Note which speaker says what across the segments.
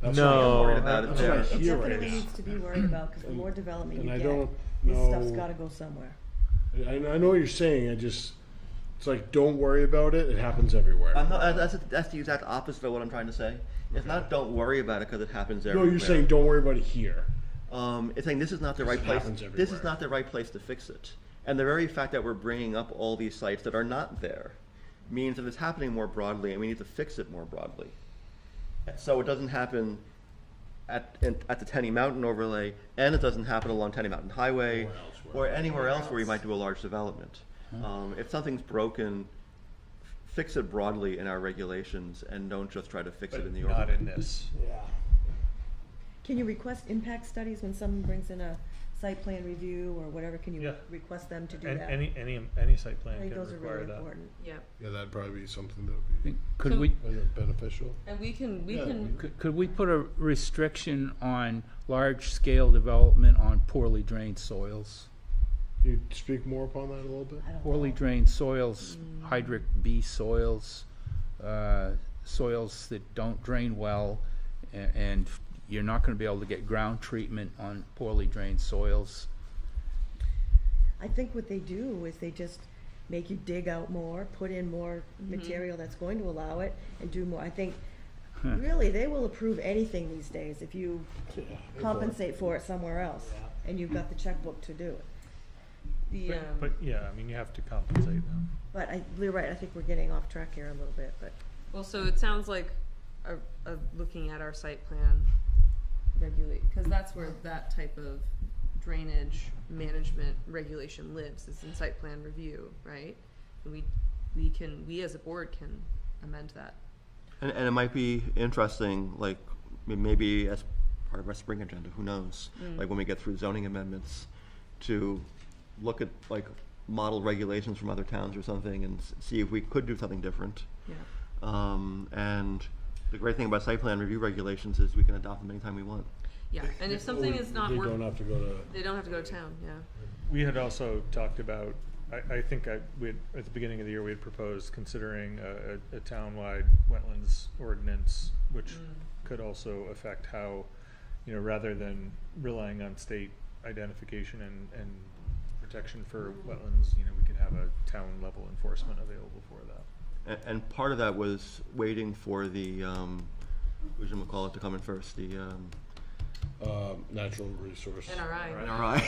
Speaker 1: That's
Speaker 2: No.
Speaker 1: what I'm worried
Speaker 2: That's
Speaker 1: about it
Speaker 2: what
Speaker 1: there.
Speaker 2: I
Speaker 3: It
Speaker 2: hear right
Speaker 3: definitely
Speaker 2: now.
Speaker 3: needs to be worried about, because the more development
Speaker 2: And
Speaker 3: you
Speaker 2: I
Speaker 3: get,
Speaker 2: don't
Speaker 3: this stuff's
Speaker 2: know-
Speaker 3: gotta go somewhere.
Speaker 2: I, I know what you're saying. I just, it's like, don't worry about it. It happens everywhere.
Speaker 1: I'm not, that's, that's the exact opposite of what I'm trying to say. It's not don't worry about it because it happens
Speaker 2: no,
Speaker 1: everywhere.
Speaker 2: you're saying don't worry about it here.
Speaker 1: Um, it's saying this is not the right
Speaker 2: it
Speaker 1: place.
Speaker 2: happens
Speaker 1: This is
Speaker 2: everywhere.
Speaker 1: not the right place to fix it. And the very fact that we're bringing up all these sites that are not there means that it's happening more broadly, and we need to fix it more broadly. So it doesn't happen at in, at the Tenny Mountain overlay, and it doesn't happen along Tenny Mountain Highway, or anywhere else where you might do a large development. Um, if something's broken, f- fix it broadly in our regulations, and don't just try to fix it in the
Speaker 4: Not
Speaker 1: overlay.
Speaker 4: in this.
Speaker 3: Can you request impact studies when someone brings in a site plan review or whatever, can you
Speaker 4: Yeah.
Speaker 3: request them to do
Speaker 4: And
Speaker 3: that?
Speaker 4: any, any, any site
Speaker 3: I
Speaker 4: plan
Speaker 3: think
Speaker 4: can
Speaker 3: those are
Speaker 4: require
Speaker 3: really
Speaker 4: that.
Speaker 3: important.
Speaker 5: Yep.
Speaker 6: Yeah, that'd probably be something that would be
Speaker 7: Could
Speaker 5: So-
Speaker 7: we,
Speaker 6: beneficial.
Speaker 5: And we can, we
Speaker 6: Yeah,
Speaker 5: can,
Speaker 7: could- could we put a restriction on large-scale development on poorly drained soils?
Speaker 2: Can you speak more upon that a little bit?
Speaker 3: I don't
Speaker 7: Poorly
Speaker 3: know.
Speaker 7: drained soils, hydric B soils, uh, soils that don't drain well, a- and you're not gonna be able to get ground treatment on poorly drained soils.
Speaker 3: I think what they do is they just make you dig out more, put in more material that's going to allow it, and do more. I think, really, they will approve anything these days if you compensate for it somewhere else, and you've got the checkbook to do it.
Speaker 5: the, um,
Speaker 4: But, yeah, I mean, you have to compensate them.
Speaker 3: But I, you're right, I think we're getting off track here a little bit, but
Speaker 5: well, so it sounds like a, a looking at our site plan regulate, cause that's where that type of drainage management regulation lives, is in site plan review, right? And we, we can, we as a board can amend that.
Speaker 1: And, and it might be interesting, like, m- maybe as part of our spring agenda, who knows?
Speaker 5: Mm.
Speaker 1: Like, when we get through zoning amendments, to look at, like, model regulations from other towns or something and s- see if we could do something different.
Speaker 5: Yeah.
Speaker 1: Um, and the great thing about site plan review regulations is we can adopt them anytime we want.
Speaker 5: Yeah, and if something is not
Speaker 2: They don't
Speaker 5: working,
Speaker 2: have to go to.
Speaker 5: they don't have to go to town, yeah.
Speaker 4: We had also talked about, I, I think I, we had, at the beginning of the year, we had proposed considering a, a, a townwide wetlands ordinance, which
Speaker 3: Mm.
Speaker 4: could also affect how, you know, rather than relying on state identification and, and protection for
Speaker 3: Mm.
Speaker 4: wetlands, you know, we could have a town level enforcement available for that.
Speaker 1: And, and part of that was waiting for the, um, we should call it to come in first, the, um,
Speaker 2: Um, natural resource.
Speaker 5: NRI,
Speaker 1: NRI.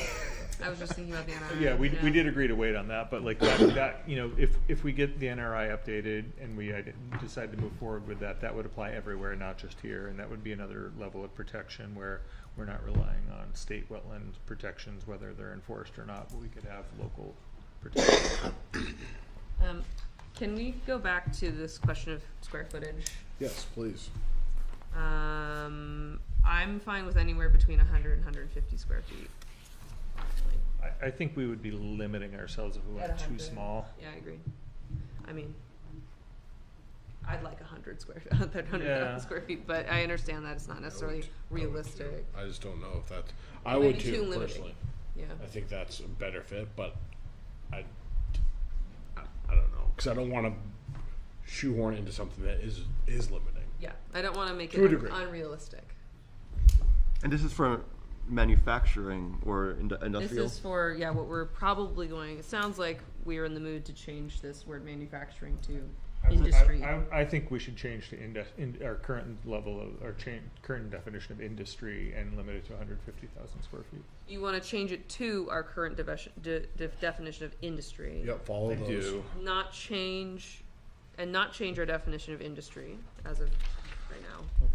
Speaker 5: I was just thinking about the NRI.
Speaker 4: Yeah, we, we
Speaker 5: yeah.
Speaker 4: did agree to wait on that, but like that, that, you know, if, if we get the NRI updated and we ide- decide to move forward with that, that would apply everywhere, not just here, and that would be another level of protection where we're not relying on state wetland protections, whether they're enforced or not, but we could have local protection.
Speaker 5: Um, can we go back to this question of square footage?
Speaker 2: Yes, please.
Speaker 5: Um, I'm fine with anywhere between 100 and 150 square feet. Like,
Speaker 4: I, I think we would be limiting ourselves if we
Speaker 5: At
Speaker 4: went too
Speaker 5: 100.
Speaker 4: small.
Speaker 5: Yeah, I agree. I mean, I'd like 100 square, 100
Speaker 4: Yeah.
Speaker 5: square feet, but I understand that it's not necessarily realistic.
Speaker 2: I just don't know if that's, I
Speaker 5: Maybe
Speaker 2: would
Speaker 5: too
Speaker 2: too,
Speaker 5: limiting.
Speaker 2: personally.
Speaker 5: Yeah.
Speaker 2: I think that's a better fit, but I, I, I don't know, cause I don't wanna shoehorn it into something that is, is limiting.
Speaker 5: Yeah. I don't want to make
Speaker 2: To a
Speaker 5: it
Speaker 2: degree.
Speaker 5: unrealistic.
Speaker 1: And this is for manufacturing or indu-
Speaker 5: This
Speaker 1: industrial?
Speaker 5: is for, yeah, what we're probably going, it sounds like we're in the mood to change this word manufacturing to industry.
Speaker 4: I, I, I think we should change to indes- in, our current level of, our cha- current definition of industry and limit it to hundred fifty thousand square feet.
Speaker 5: You want to change it to our current definition, de- de- definition of industry.
Speaker 2: Yep, follow those.
Speaker 5: Not change, and not change our definition of industry as of right now.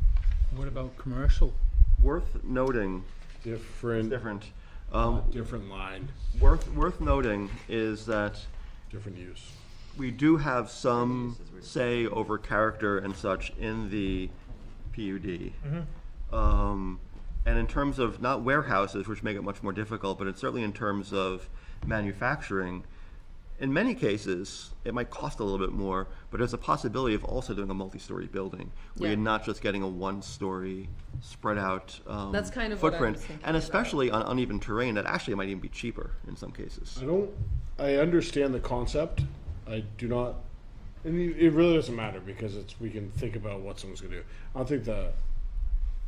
Speaker 7: What about commercial?
Speaker 1: Worth noting,
Speaker 2: Different,
Speaker 1: different, um,
Speaker 2: different line,
Speaker 1: worth, worth noting is that
Speaker 2: different use.
Speaker 1: we do have some say over character and such in the PUD.
Speaker 5: Mm-hmm.
Speaker 1: Um, and in terms of not warehouses, which make it much more difficult, but it's certainly in terms of manufacturing, in many cases, it might cost a little bit more, but there's a possibility of also doing a multi-story building where
Speaker 5: Yeah.
Speaker 1: you're not just getting a one-story spread out um,
Speaker 5: That's kind of what I
Speaker 1: footprint,
Speaker 5: was thinking
Speaker 1: and
Speaker 5: about.
Speaker 1: especially on uneven terrain, that actually might even be cheaper in some cases.
Speaker 2: I don't. I understand the concept. I do not. And it it really doesn't matter because it's we can think about what someone's gonna do. I don't think the